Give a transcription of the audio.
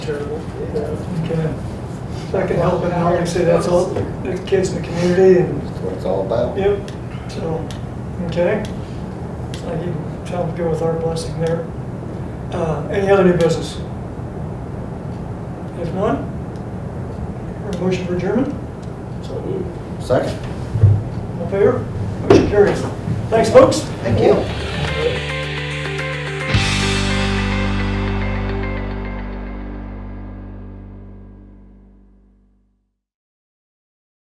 terrible. Kinda Second helping hour, like I say, that's all, the kids in the community and, That's what it's all about. yep, so, okay. I can tell them to go with our blessing there. Uh, Any other new business? If not, our motion for adjournment, Second. all in favor? Motion carries. Thanks, folks. Thank you.